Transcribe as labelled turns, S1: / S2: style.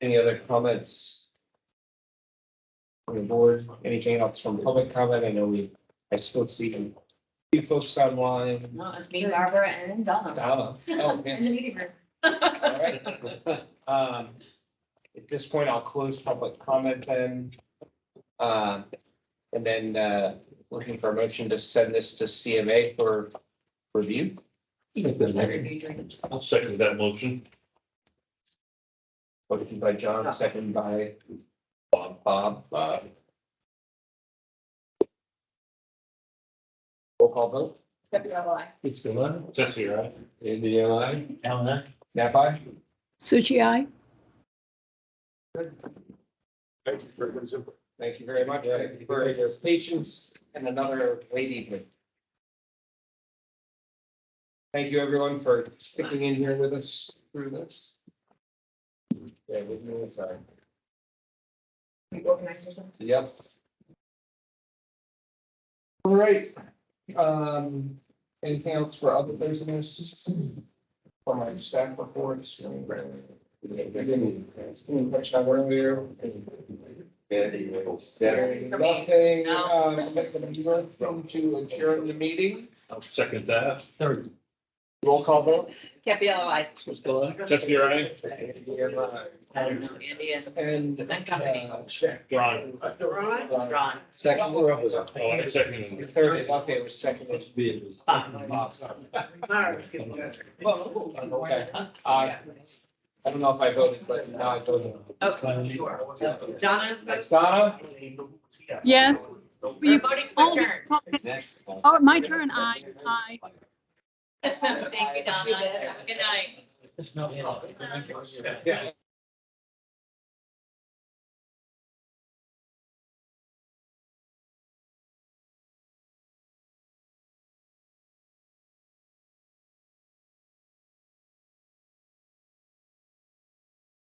S1: Any other comments? From the board, anything else from public comment? I know we, I still see you folks online.
S2: No, it's me, Barbara, and Donna.
S1: Donna, oh, yeah.
S2: In the meeting room.
S1: All right. Um, At this point, I'll close public comment then. Um, And then uh, looking for a motion to send this to CMA for review.
S3: I'll second that motion.
S1: Motion by John, second by Bob, Bob. uh, Roll call vote,
S2: Pepper, aye.
S4: It's the one,
S3: Tessie, right?
S4: Andy, I, Alan, I.
S1: Napa,
S5: Suchi, aye.
S4: Thank you for this.
S1: thank you very much Thank you for your patience and another late evening. Thank you, everyone, for sticking in here with us through this. Yeah, with me, sorry.
S2: You organize yourself.
S1: Yep. All right, um, anything else for other business? For my staff reports? Any any question I went earlier? Nothing, um, welcome to adjourn the meeting,
S3: I'll second that.
S4: Third,
S1: roll call vote.
S2: Pepper, aye.
S4: it's the one.
S3: Tessie, right?
S2: I don't know, Andy is.
S1: And. uh, check.
S3: Ron.
S1: Oh,
S2: Ron.
S1: Second.
S4: We're up with it.
S3: Oh, I second. it.
S1: Third, okay, it was second. Okay, uh, I don't know if I voted, but now I voted.
S2: Oh, Donna,
S1: Thanks, Donna.
S5: Yes.
S2: we're voting for turn.
S5: Oh, my turn, aye, aye.
S2: Thank you, Donna. Good night.
S4: It's not.
S5: uh,
S1: Yeah.